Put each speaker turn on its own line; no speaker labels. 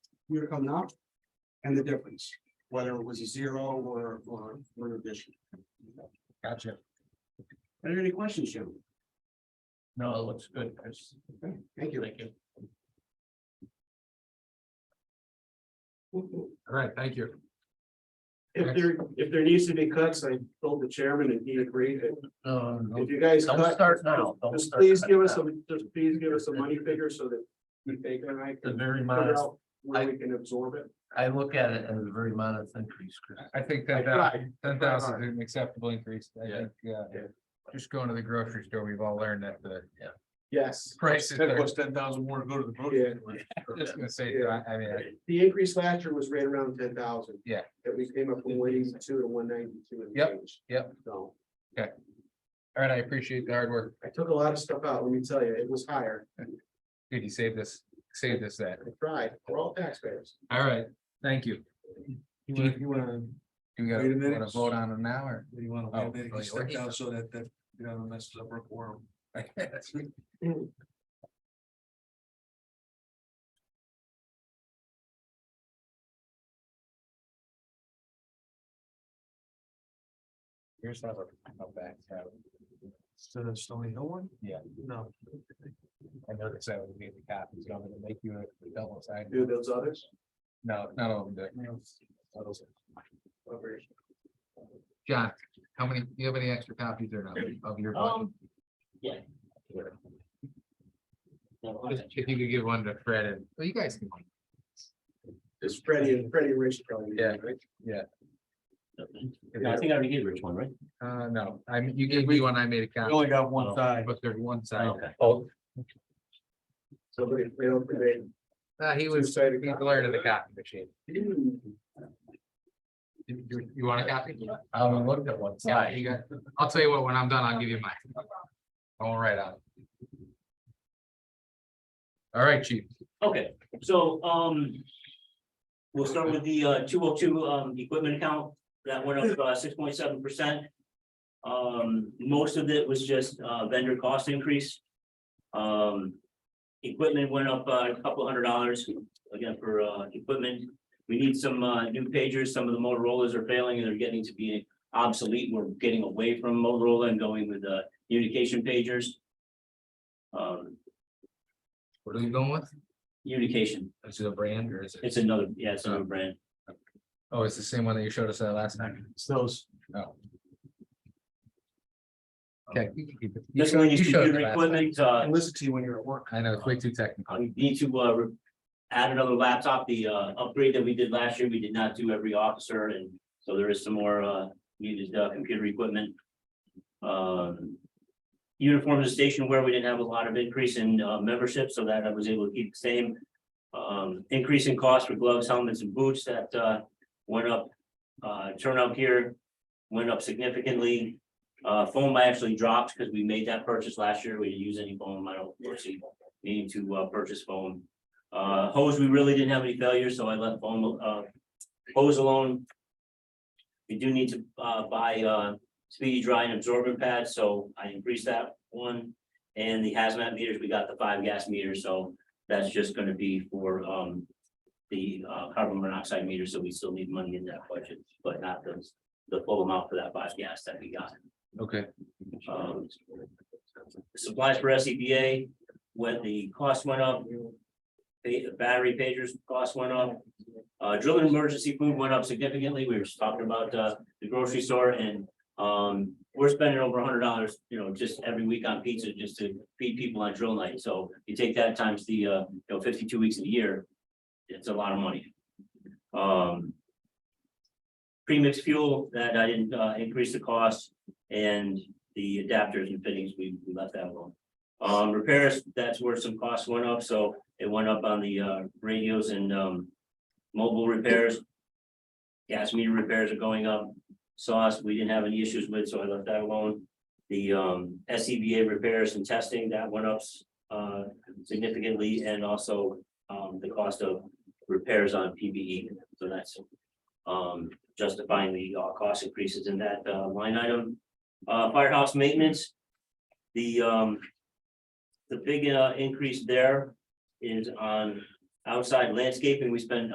year coming up. And the difference, whether it was a zero or, or, or an addition.
Gotcha.
Are there any questions, gentlemen?
No, it looks good, Chris.
Okay, Thank you.
Thank you. All right, thank you.
If there, if there needs to be cuts, I told the chairman and he agreed. that
Um,
If you guys
don't
cut,
start now. Don't
just
start
please
cutting
give us
now.
some, just please give us a money figure so that we take it and I
The
can
very
figure
modest,
out where we can absorb it.
I look at it as a very modest increase, Chris.
I think
I
ten
tried.
thousand, ten thousand is an acceptable increase. I
Yeah.
think, uh,
Yeah.
just going to the grocery store, we've all learned that the
Yes.
prices are
ten thousand more to go to the
grocery
just gonna say,
Yeah.
I I mean, I-
The increase last year was right around ten thousand.
Yeah.
That we came up from one eighty-two to one ninety-two and
Yep,
change.
yep.
So
all right, I appreciate the hard work.
I took a lot of stuff out, let me tell you, it was higher.
Did you save this, save this that?
I tried, we're all taxpayers.
All right, thank you.
You wanna, you wanna,
Do we gotta
Wait a minute.
wanna vote on them now or?
you wanna wait
Oh,
a minute,
oh,
you
you
step
already-
down so that, that, you know, messes up our quorum.
Here's how i back.
So the Stony Hill one?
Yeah.
No.
I noticed that would be the cap, it's gonna make you a double side.
Do those others?
No, not all of them.
Over here.
John, how many, do you have any extra copies or not of your? budget?
Um, yeah.
Um,
Just If you could give one to Fred and, well, you guys can.
It's Freddie and Freddie and Rich probably.
Yeah.
right?
I think I already gave Rich one, right?
Uh, no, I mean, you gave me one, I made a copy.
only got
one
side.
But there's one side.
Okay.
Oh,
Somebody, they don't debate.
uh, he was, he
Two-sided copy.
glared at the copy machine. You, you- you want a copy?
I haven't looked at one
Yeah,
side.
you got, I'll tell you what, when I'm done, I'll give you mine. I won't write on it. All right, chief.
Okay, so, um. We'll start with the, uh, two oh two, um, equipment account, that went up, uh, six point seven percent. Um, most of it was just, uh, vendor cost increase. Um. Equipment went up, uh, a couple hundred dollars, again, for, uh, equipment. We need some, uh, new pagers, some of the Motorola's are failing and they're getting to be obsolete, we're getting away from Motorola and going with, uh, communication pagers. Um,
What are we going with?
communication,
Is it a brand or is it?
it's another, yeah, it's another brand.
Oh, it's the same one that you showed us that last time.
It's those.
Oh. Okay. you can keep it. You
This
showed-
one
you
is
showed it
computer
last time.
equipment, uh,
I listen to you when you're at work.
I know, it's way too technical.
we need to, uh, re- add another laptop, the, uh, upgrade that we did last year, we did not do every officer, and so there is some more, uh, needed, uh, computer equipment. Um, uniforms and station where we didn't have a lot of increase in, uh, membership, so that I was able to keep the same. Um, increase in cost for gloves, helmets, and boots that, uh, went up, uh, turnout gear went up significantly. Uh, foam actually dropped because we made that purchase last year, we didn't use any foam, I don't foresee needing to uh purchase foam. Uh, hose, we really didn't have any failures, so I left foam uh hose alone. We do need to uh buy uh speedy dry and absorbent pads, so I increased that one. And the hazmat meters, we got the five gas meters, so that's just gonna be for um the uh carbon monoxide meter, so we still need money in that budget, but not the the full amount for that five gas that we got.
Okay.
Um, Supplies for S E B A, when the cost went up. The battery pagers cost went up. Uh, drilling emergency food went up significantly. We were just talking about, uh, the grocery store and, um, we're spending over hundred dollars, you know, just every week on pizza just to feed people on drill night. So you take that times the, uh, you know, fifty-two weeks of the year, it's a lot of money. Um. Premix fuel that I didn't, uh, increase the cost and the adapters and fittings, we, we left that alone. Um, repairs, that's where some costs went up, so it went up on the, uh, radios and, um, mobile repairs. Gas meter repairs are going up, sauce, we didn't have any issues with, so I left that alone. The, um, S E B A repairs and testing, that went up, uh, significantly, and also, um, the cost of repairs on P B E, so that's, um, justifying the, uh, cost increases in that, uh, line item. Uh, firehouse maintenance. The, um. The big, uh, increase there is on outside landscaping. We spend